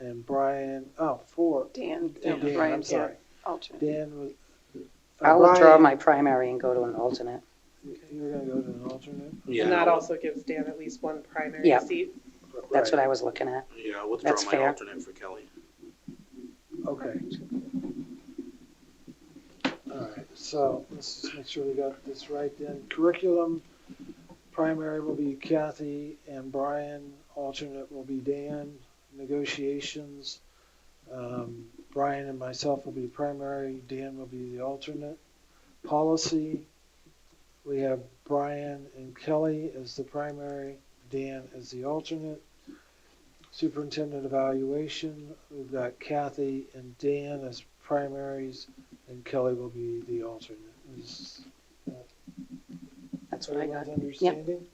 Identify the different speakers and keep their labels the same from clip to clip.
Speaker 1: and Brian, oh, four.
Speaker 2: Dan,
Speaker 1: And Dan, I'm
Speaker 2: Brian's
Speaker 1: sorry.
Speaker 2: alternate.
Speaker 1: Dan was. uh,
Speaker 3: I'll withdraw
Speaker 1: Brian-
Speaker 3: my primary and go to an alternate.
Speaker 1: You were gonna go to an alternate?
Speaker 4: Yeah,
Speaker 5: And that
Speaker 4: I'll-
Speaker 5: also gives Dan at least one primary
Speaker 3: Yeah.
Speaker 5: seat.
Speaker 3: That's what
Speaker 1: Right,
Speaker 3: I was looking at.
Speaker 4: yeah, I'll withdraw
Speaker 3: That's
Speaker 4: my
Speaker 3: fair.
Speaker 4: alternate for Kelly.
Speaker 1: Okay. All right, so let's just make sure we got this right then. Curriculum primary will be Kathy and Brian, alternate will be Dan. Negotiations, um, Brian and myself will be primary, Dan will be the alternate. Policy, we have Brian and Kelly as the primary, Dan as the alternate. Superintendent evaluation, we've got Kathy and Dan as primaries, and Kelly will be the alternate. Is
Speaker 3: That's what I got.
Speaker 1: everyone's understanding?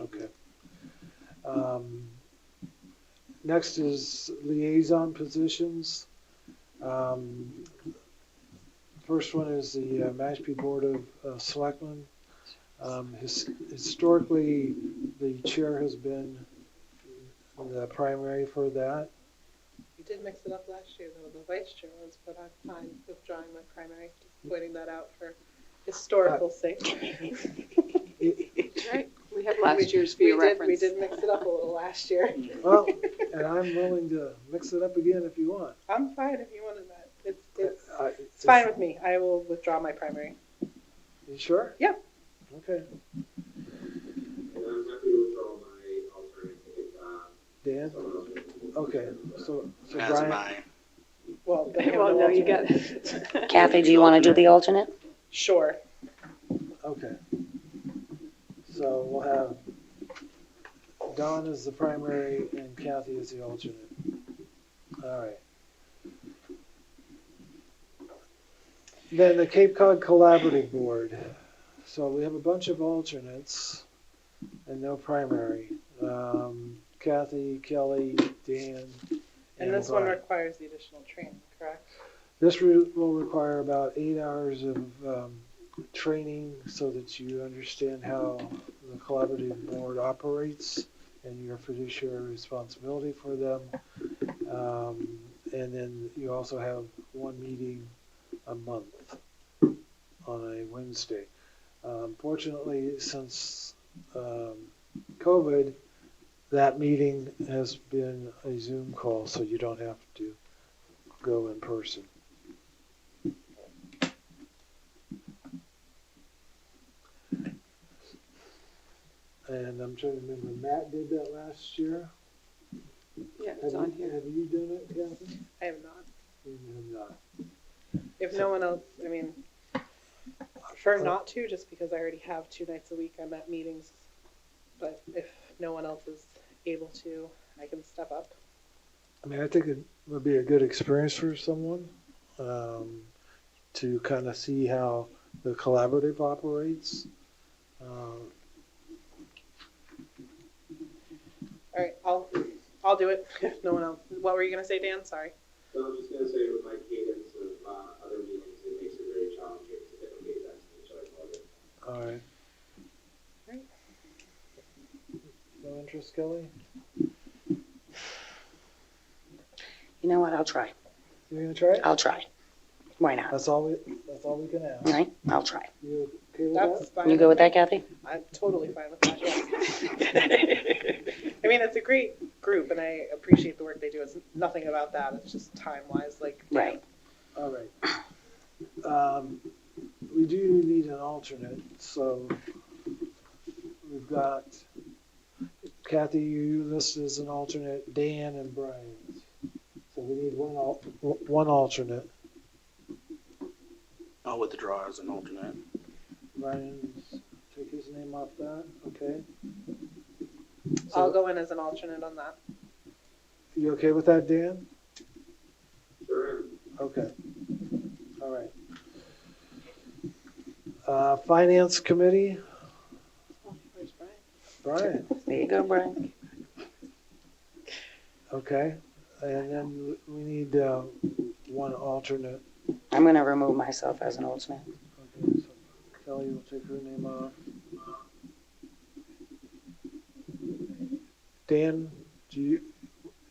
Speaker 1: Okay. Um, Next is liaison positions. Um, First one is the uh, Mashpee Board of uh, Selectmen. Um, his- Historically, the chair has been the primary for that.
Speaker 5: You did mix it up last year, though, the vice chair was, but I'm fine withdrawing my primary, just pointing that out for historical sake.
Speaker 2: Right, we have last year's for
Speaker 5: We
Speaker 2: your
Speaker 5: did, we
Speaker 2: reference.
Speaker 5: did mix it up a little last year.
Speaker 1: Well, and I'm willing to mix it up again if you want. Uh,
Speaker 5: I'm fine if you wanted that. It's, it's,
Speaker 1: I-
Speaker 5: it's fine with me. I will withdraw my primary.
Speaker 1: You sure?
Speaker 5: Yeah.
Speaker 1: Okay.
Speaker 6: And I'm happy to withdraw my alternate if, um,
Speaker 1: Dan?
Speaker 6: someone else wants to.
Speaker 1: Okay, so, so
Speaker 4: As am
Speaker 1: Brian,
Speaker 4: I.
Speaker 5: Well, they have
Speaker 2: Well,
Speaker 5: no
Speaker 2: no, you
Speaker 5: alternate.
Speaker 2: got it.
Speaker 3: Kathy, do you want to do the alternate?
Speaker 5: Sure.
Speaker 1: okay. So we'll have Don as the primary and Kathy as the alternate. All right. Then the Cape Cod Collaborative Board. So we have a bunch of alternates and no primary. Um, Kathy, Kelly, Dan.
Speaker 5: And this one
Speaker 1: Brian.
Speaker 5: requires the additional training, correct?
Speaker 1: This route will require about eight hours of um, training so that you understand how the collaborative board operates and your fiduciary responsibility for them. Um, and then you also have one meeting a month on a Wednesday. Um, fortunately, since um, COVID, that meeting has been a Zoom call, so you don't have to go in person. And I'm trying to remember, Matt did that last year.
Speaker 2: Yeah,
Speaker 1: Have
Speaker 2: it's on
Speaker 1: you-
Speaker 2: here.
Speaker 1: Have you done it, uh, Kathy?
Speaker 5: I am not.
Speaker 1: You have not.
Speaker 5: If no one else, I mean, prefer not to, just because I already have two nights a week I'm at meetings. But if no one else is able to, I can step up.
Speaker 1: I mean, I think it would be a good experience for someone um, to kind of see how the collaborative operates. Uh,
Speaker 5: All right, I'll, I'll do it if no one else. What were you gonna say, Dan? Sorry.
Speaker 6: So I'm just gonna say with my cadence of, uh, other meetings, it makes it very challenging to dedicate that to each other.
Speaker 1: all right.
Speaker 5: Great.
Speaker 1: No interest, Kelly?
Speaker 3: You know what? I'll try.
Speaker 1: You're gonna try it?
Speaker 2: Uh,
Speaker 3: I'll try. Why not?
Speaker 1: That's all we. That's all we can ask.
Speaker 3: Right? I'll try.
Speaker 1: You okay with
Speaker 5: That's
Speaker 1: that?
Speaker 5: fine.
Speaker 3: You go with that, Kathy?
Speaker 5: I'm totally fine with that, yes. I mean, it's a great group and I appreciate the work they do. It's nothing about that. It's just time-wise, like. Dan.
Speaker 3: Right.
Speaker 1: All right. Um, we do need an alternate, so we've got Kathy. You listed as an alternate, Dan and Brian. So we need one al- one alternate.
Speaker 4: I'll withdraw as an alternate.
Speaker 1: Brian's take his name off that. Okay.
Speaker 5: I'll
Speaker 1: So-
Speaker 5: go in as an alternate on that.
Speaker 1: You okay with that, Dan?
Speaker 6: Sure.
Speaker 1: Okay. All right. Uh, Finance Committee,
Speaker 5: Where's Brian?
Speaker 1: Brian.
Speaker 3: There you go, Brian.
Speaker 1: Okay, and then we need uh, one alternate.
Speaker 3: I'm going to remove myself as an alternate.
Speaker 1: Okay, so Kelly will take her name off. Dan, do you,